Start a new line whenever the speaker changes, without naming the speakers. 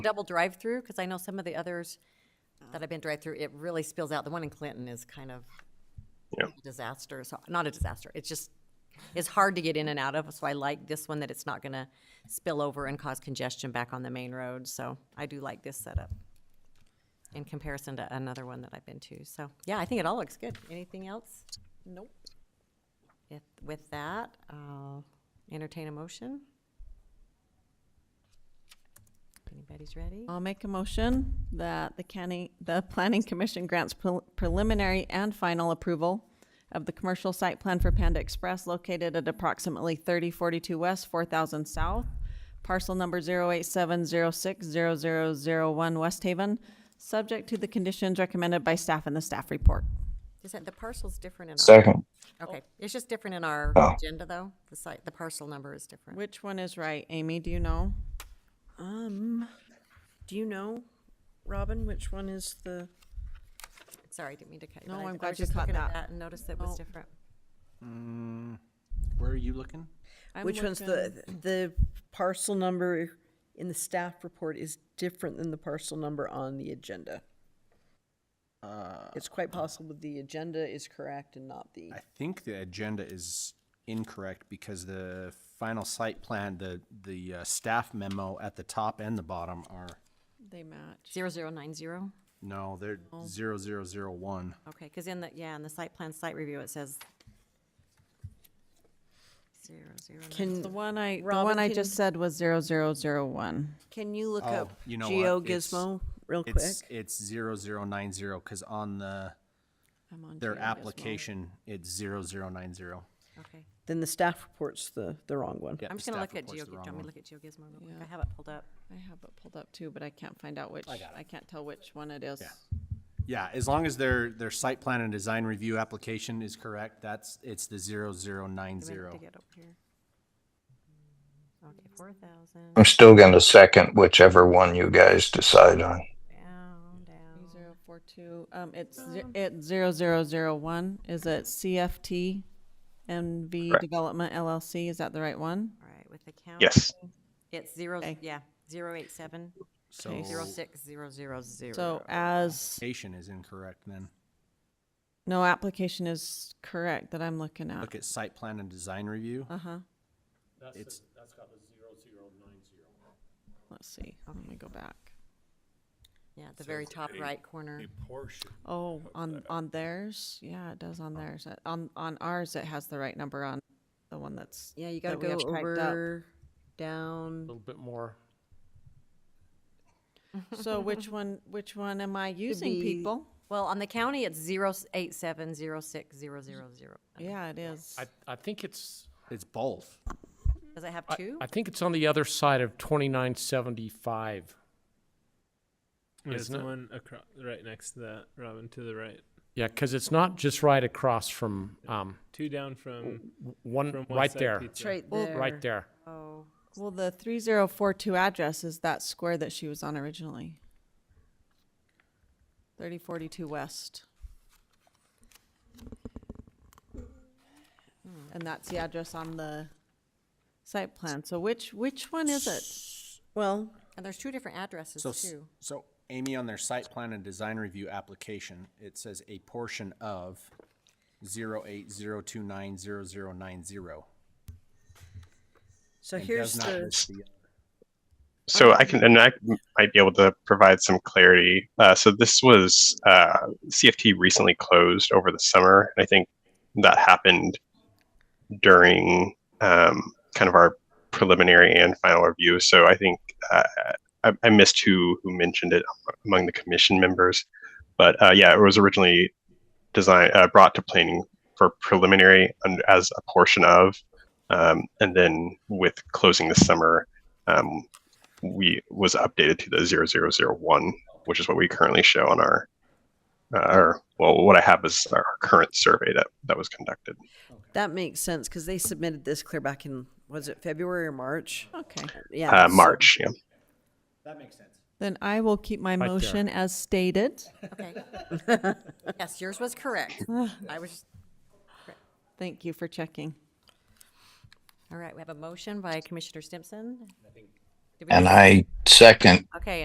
double drive-through? Because I know some of the others that I've been drive-through, it really spills out. The one in Clinton is kind of
Yeah.
a disaster, so, not a disaster, it's just, it's hard to get in and out of, so I like this one that it's not gonna spill over and cause congestion back on the main road, so I do like this setup in comparison to another one that I've been to, so, yeah, I think it all looks good. Anything else? Nope. If, with that, I'll entertain a motion. Anybody's ready?
I'll make a motion that the county, the planning commission grants prel- preliminary and final approval of the commercial site plan for Panda Express located at approximately thirty forty-two west, four thousand south, parcel number zero eight seven zero six zero zero zero one West Haven, subject to the conditions recommended by staff in the staff report.
Is that, the parcel's different in our,
Second.
okay, it's just different in our
Oh.
agenda, though? The site, the parcel number is different.
Which one is right, Amy, do you know?
Um, do you know, Robin, which one is the,
Sorry, I didn't mean to cut you.
No,
but I-
I'm
I was
glad you
just
caught
looking at
that.
And noticed it was
Oh.
different.
Where are you looking?
I'm
which one's
looking-
the, the parcel number in the staff report is different than the parcel number on the agenda? It's quite possible the agenda is correct and not the,
Uh, I think the agenda is incorrect because the final site plan, the, the uh, staff memo at the top and the bottom are,
They match.
Zero zero nine zero?
no, they're zero zero zero one.
Okay, because in the, yeah, in the site plan site review, it says zero zero. nine-
The
can,
one I, the
Robin,
one I
can-
just said was zero zero zero one.
can you look
Oh,
up
you know what?
Geo
It's-
Gizmo real quick?
It's, it's zero zero nine zero, cause on the,
I'm on
their
Geo Gizmo.
application, it's zero zero nine zero.
Okay.
Then the staff report's the, the wrong one.
I'm just gonna look at Geo, do you want me to look at GeoGizmo real quick? I
Yeah.
have it pulled up.
I have it pulled up too, but I can't find out which, I can't tell which one it is.
Yeah, as long as their, their site plan and design review application is correct, that's, it's the zero zero nine
I meant
zero.
To get up here. Okay, four thousand,
I'm still going to second whichever one you guys decide on.
down, down.
Zero four two, um, it's, ze- it's zero zero zero one, is it CFT NV Development LLC, is that the right one?
All right, with the count.
Yes.
It's zero, yeah, zero eight seven,
So,
zero six, zero zero zero.
So as,
application is incorrect then.
no application is correct that I'm looking at.
Uh-huh.
Look at site plan and design review.
Uh-huh,
It's,
let's see, let me go back.
Yeah, at the very top right corner.
Oh, on, on theirs, yeah, it does on theirs, Uh, on, on ours, it has the right number on the one that's.
Yeah, you
that
gotta
we
go
have typed up.
over, down.
little bit more.
So which one, which one am I using,
be-
people?
Well, on the county, it's zero eight seven, zero six, zero zero zero.
Yeah, it is.
I, I think it's,
it's both.
Does it have
I-
two?
I think it's on the other side of twenty-nine seventy-five.
There's
Isn't
the
it?
one across, right next to that, Robin, to the right.
Yeah, because it's not just right across from, um,
Two down from,
w- one,
from West
right
Side
there,
Pizza.
It's right there.
right there.
Oh,
Well, the three zero four two address is that square that she was on originally. Thirty forty-two west. And that's the address on the site plan. So which, which one is it?
Well,
and there's two different addresses
So, s-
too.
so Amy, on their site plan and design review application, it says a portion of zero eight zero two nine zero zero nine zero.
so here's the.
So I can, and I might be able to provide some clarity. Uh, so this was uh, CFT recently closed over the summer, and I think that happened during um, kind of our preliminary and final review. So I think uh, I, I missed who who mentioned it among the commission members, but uh, yeah, it was originally designed uh, brought to planning for preliminary and as a portion of, um, and then with closing this summer. Um, we was updated to the 0001, which is what we currently show on our, uh, or well, what I have is our current survey that that was conducted.
That makes sense because they submitted this clear back in was it February or March?
Okay,
Yeah,
Uh,
so-
March, yeah.
then I will keep my
there.
motion as stated.
Okay. Yes, yours was correct. I was,
Thank you for checking.
all right, we have a motion by Commissioner Stimson. Did we-
And I second
Okay,